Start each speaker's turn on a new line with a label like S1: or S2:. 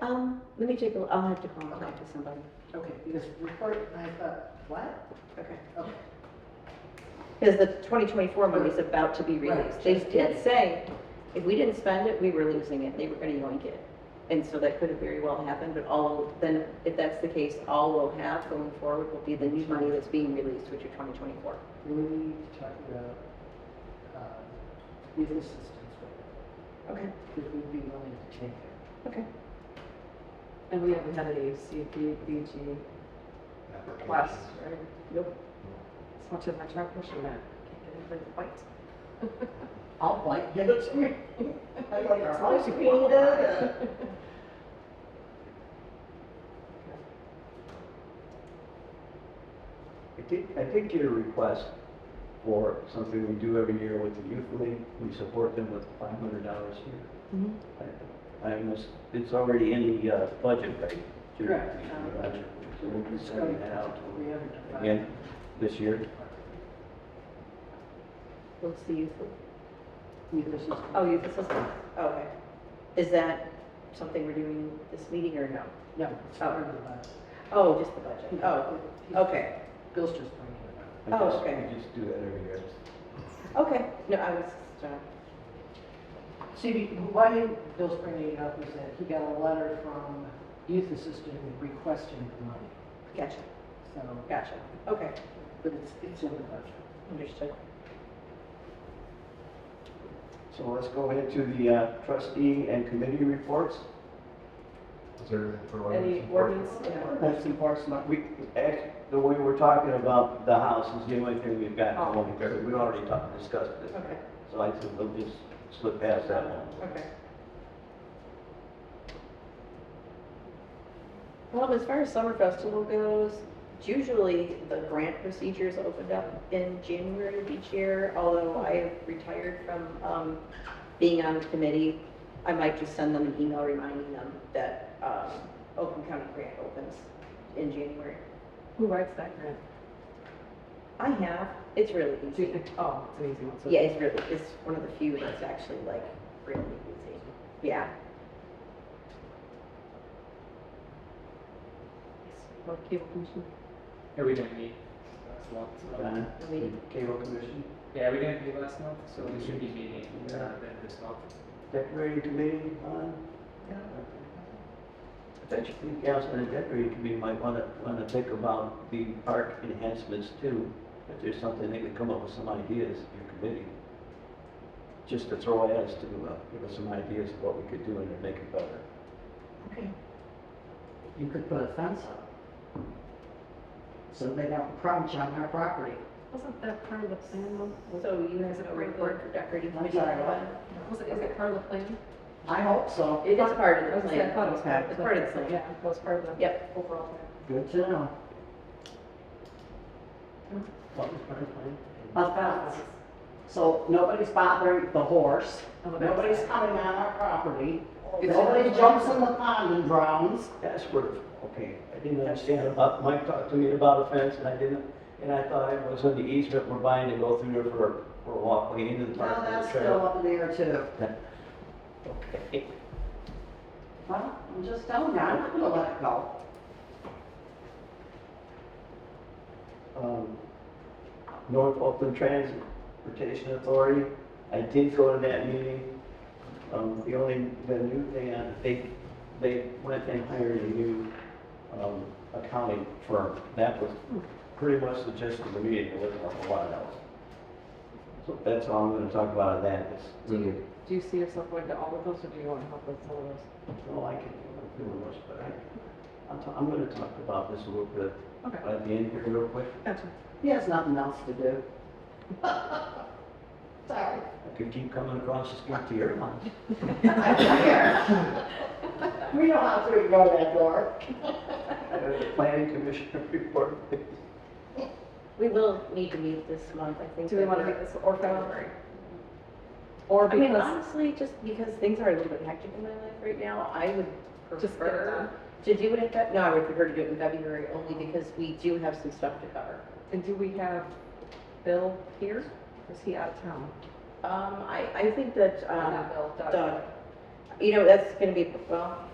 S1: Um, Let me take a, I'll have to contact somebody.
S2: Okay, because report, I thought, what?
S1: Okay.
S2: Okay.
S1: Because the 2024 money's about to be released. They
S2: just-
S1: did say, if we didn't spend it, we were losing it, they were going to yoink it. And so that could have very well happened, but all, then, if that's the case, all we'll have going forward will be the new money that's being released, which are 2024.
S2: We need to talk about, um, legal assistance, right?
S1: Okay,
S2: Because we'd be willing to change it.
S1: okay.
S3: And we haven't had any CDBG requests, right?
S1: Nope.
S3: As much as I try pushing that, can't get anybody to bite.
S2: I'll bite you. I like
S3: It's
S2: our
S3: supposed to be.
S2: Peter.
S4: I did, I did get a request for something we do every year with the youth league. We support them with five hundred dollars here.
S3: Mhm.
S4: I- I must, it's already in the uh, budget, right? Jim?
S2: Correct.
S4: In the budget. So we'll be sending that out
S2: We haven't defined-
S4: again this year.
S1: What's the youth,
S2: Legal assistance.
S1: oh, youth assistance, Oh, okay. Is that something we're doing this meeting or no?
S2: No, it's not in the budget.
S1: Oh, just the budget, oh, okay,
S2: Bill's just bringing it up.
S4: I
S1: Oh,
S4: guess
S1: okay.
S4: We just do that every year.
S1: okay. No, I was, just, uh,
S2: See, why Bill's bringing it up is that he got a letter from youth assistant requesting the money.
S1: gotcha,
S2: So,
S1: gotcha, okay,
S2: but it's, it's in the budget.
S1: understood.
S4: So let's go into the uh, trustee and committee reports.
S5: Is there anything for
S3: Any
S5: ordinance?
S3: ordinance?
S4: That's enforcement. We, act- the way we're talking about the house is the only thing we've got.
S3: Oh.
S4: Because we already talked, discussed it.
S1: Okay,
S4: So I said, we'll just slip past that one.
S1: okay. Well, as far as summer festival goes, it's usually the grant procedure is opened up in January of each year, although I have retired from, um, being on the committee, I might just send them an email reminding them that, um, Oakland County Grant opens in January.
S3: Who writes that grant?
S1: I have, it's really
S3: Do
S1: easy.
S3: you, oh, it's an easy one. so-
S1: Yeah, it's really, it's one of the few that's actually like really easy. Yeah.
S3: Well, cable commission.
S6: Yeah, we didn't meet last month. so-
S4: John,
S1: We-
S4: cable commission,
S6: Yeah, we didn't meet last month, so we should be meeting uh, then this month.
S4: decorating committee, on? Potentially, council and decorating committee might want to, want to think about the park enhancements too. If there's something, they could come up with some ideas, your committee. Just to throw at us to, uh, give us some ideas of what we could do and to make it better.
S2: Okay. You could put a fence up. So they don't encroach on our property.
S3: Wasn't that part of the plan though? Was-
S1: So you have
S3: Is it
S1: a
S3: part of
S1: report
S3: the-
S1: for decorating
S2: I'm
S1: committee?
S2: sorry,
S3: Was it, is it part of the plan?
S2: I hope so.
S1: It is part of
S3: I
S1: the
S3: was gonna say, I thought it was part
S1: plan.
S3: of the.
S1: It's part of the plan.
S3: Yeah, it was part of the.
S1: Yep.
S3: Overall plan.
S2: Good to know.
S4: What was part of the plan?
S7: a fence. So nobody's bothering the horse, nobody's coming on our property, nobody jumps in the pond and drowns.
S4: That's where, okay, I didn't understand about, Mike talked to me about a fence and I didn't, and I thought it was on the easement we're buying to go through there for, for a walkway into the park.
S7: Well,
S4: for the
S7: that's
S4: trail.
S7: still up in the air too.
S4: Okay.
S7: Well, I'm just telling you, I'm not gonna let it go.
S4: Um, North Oakland Transportation Authority, I did go to that meeting. Um, the only, the new thing, uh, they, they went and hired a new, um, accounting firm. That was pretty much the gist of the meeting, there wasn't a whole lot else. So that's all I'm gonna talk about on that, it's
S3: Do
S4: really,
S3: you, do you see yourself going to all of those or do you want to help with some of those?
S4: no, I can, I'm doing much, but I, I'm, ta- I'm gonna talk about this a little bit
S3: Okay.
S4: at the end here real quick.
S3: Gotcha.
S7: He has nothing else to do. Sorry.
S4: I could keep coming across this empty airline.
S7: We know how to ignore that door.
S4: Uh, Planning Commissioner report.
S1: We will need to meet this month, I think.
S3: Do we
S1: that
S3: want to
S1: we're-
S3: make this or February? Or
S1: I mean,
S3: because,
S1: honestly, just because things are a little bit hectic in my life right now, I would
S3: Just get it
S1: prefer to do it in Feb, no, I would prefer to do it in February only because we do have some stuff to cover.
S3: and do we have Bill here? Or is he out of town?
S1: Um, I, I think that, um,
S3: Not Bill, Doug.
S1: Doug, you know, that's gonna be, well,